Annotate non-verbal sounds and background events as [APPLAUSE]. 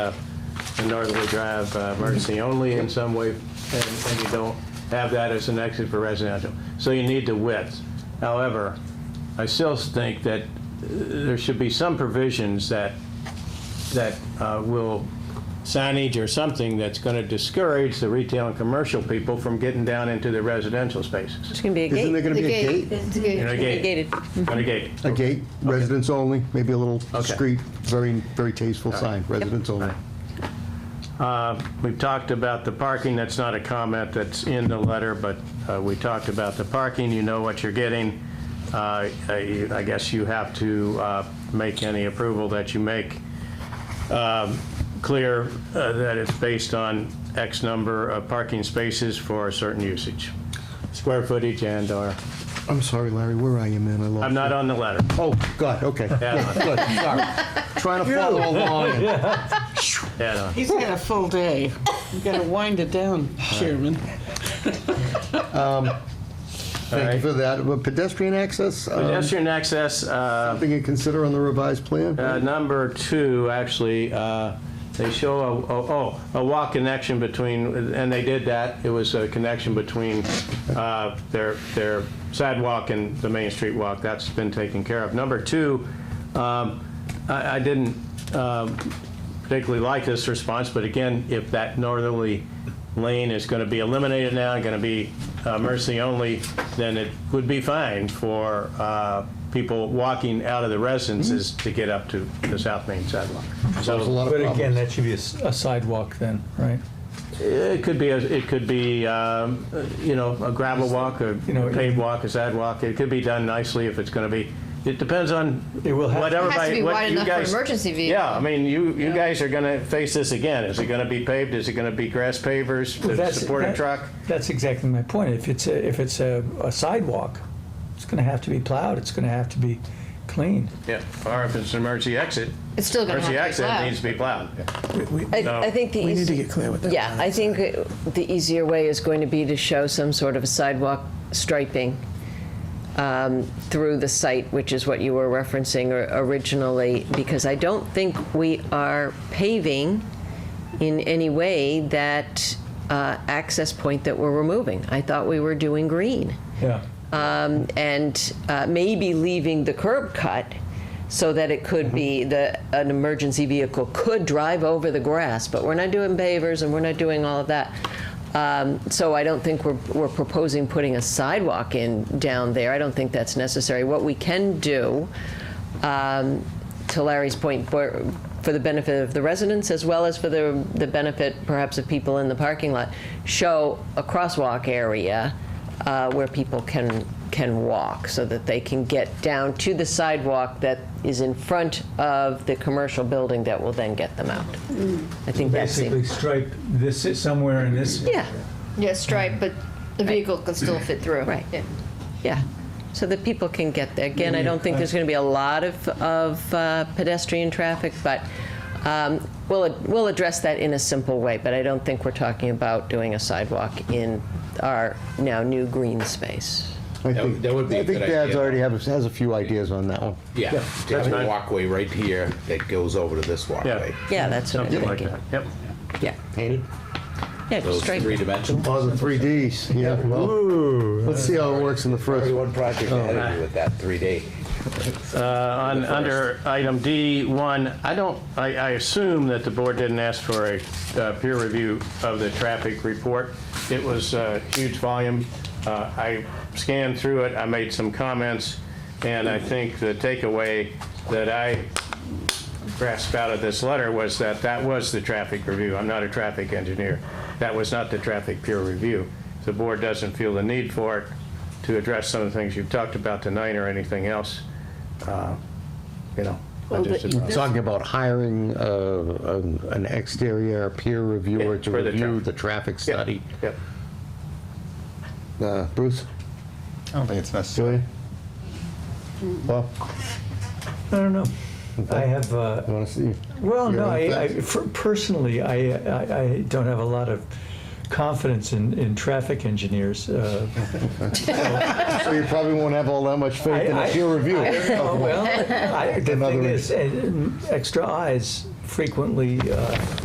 the Northerly uh, Drive uh, emergency only in some way, and and you don't have that as an exit for residential. So you need the width. However, I still think that uh, there should be some provisions that, that uh, will, signage or something that's going to discourage the retail and commercial people from getting down into the residential spaces. It's gonna be a Isn't there gate. going to be a gate? It's You know, good. a gate, Gated. on a gate. A gate, residents only, maybe a little Okay. discreet, very, very tasteful sign, residents only. We've talked about the parking, that's not a comment that's in the letter, but uh, we talked about the parking, you know what you're getting. Uh, I I guess you have to uh, make any approval that you make um, clear uh, that it's based on X number of parking spaces for a certain usage, square footage and/or, I'm sorry, Larry, where are you, man? I lost I'm not on the letter. you. Oh, God, okay. Add Good, sorry. Trying to follow [LAUGHS] along. on, add on. He's had a full day. You gotta wind it down, Chairman. Thank you for that. But Pedestrian access, um, Pedestrian access, uh, something you consider on the revised plan? Uh, Number two, actually, uh, they show, a- oh, oh, a walk connection between, and they did that, it was a connection between uh, their their sidewalk and the Main Street walk, that's been taken care of. Number two, um, I I didn't um, particularly like this response, but again, if that northerly lane is going to be eliminated now, going to be uh, emergency only, then it would be fine for uh, people walking out of the residences to get up to the South Main sidewalk. There's a So lot of But again, problems. that should be a s- a sidewalk then, right? it could be, a- it could be, um, you know, a gravel walk, a You know, paved walk, a sidewalk. It could be done nicely if it's going to be, it depends on It will have- what It has everybody, to be what wide you enough for guys- emergency vehicle. Yeah, I mean, you, you guys are going to face this again. Is it going to be paved? Is it going to be grass pavers to That's- support a that- truck? That's exactly my point. If it's, a- if it's a a sidewalk, it's going to have to be plowed, it's going to have to be cleaned. Yeah, or if it's an emergency exit. It's still gonna have to be Emergency exit plowed. it needs to be plowed. I, No. I think the We need to easy, get clear with that. yeah, I think the easier way is going to be to show some sort of a sidewalk striping um, through the site, which is what you were referencing or- originally, because I don't think we are paving in any way that uh, access point that we're removing. I thought we were doing green. Yeah. um, and uh, maybe leaving the curb cut so that it could be the an emergency vehicle could drive over the grass. But we're not doing pavers and we're not doing all of that. Um, so I don't think we're we're proposing putting a sidewalk in down there. I don't think that's necessary. What we can do. Um, to Larry's point, for, for the benefit of the residents as well as for the, the benefit perhaps of people in the parking lot, show a crosswalk area uh, where people can, can walk so that they can get down to the sidewalk that is in front of the commercial building that will then get them out. I think that's Basically the, stripe this, somewhere in this. yeah, Yeah, stripe, but the vehicle can still fit through. Right. Yeah. yeah. So that people can get there. Again, I don't think there's going to be a lot of, of uh, pedestrian traffic, but um, we'll, we'll address that in a simple way, but I don't think we're talking about doing a sidewalk in our now new green space. I That think- would- that would be a I think good Dad's idea. already have a- has a few ideas on that one. Yeah, to that's have fine. a walkway right here that goes over to this walkway. Yeah, that's what I'm Something like thinking. that, yep. Yeah, Painted? yeah, Those just straight. three dimensional. Oh, the 3Ds, yeah, well, let's see how it works in the first Already one. one project ahead of you with that 3D. On, first. under item D1, I don't, I, I assume that the board didn't ask for a uh, peer review of the traffic report. It was a huge volume. Uh, I scanned through it, I made some comments, and I think the takeaway that I grasped out of this letter was that that was the traffic review. I'm not a traffic engineer. That was not the traffic peer review. The board doesn't feel the need for it to address some of the things you've talked about tonight or anything else, uh, you know. I just- Talking about hiring uh, an an exterior peer reviewer Yeah, to for the review traffic. the traffic Yep, study. yep. Uh, Bruce, I don't think it's necessary. Julia? Well, I don't know. I have, uh, you want to see? Well, Your no, own I, I, thoughts? for- personally, I, I, I don't have a lot of confidence in, in traffic engineers. [LAUGHS] Uh, So you probably won't have all that much faith in a I- I- peer I review. don't know. Well, oh, I, the Another thing is, uh, extra eyes frequently uh,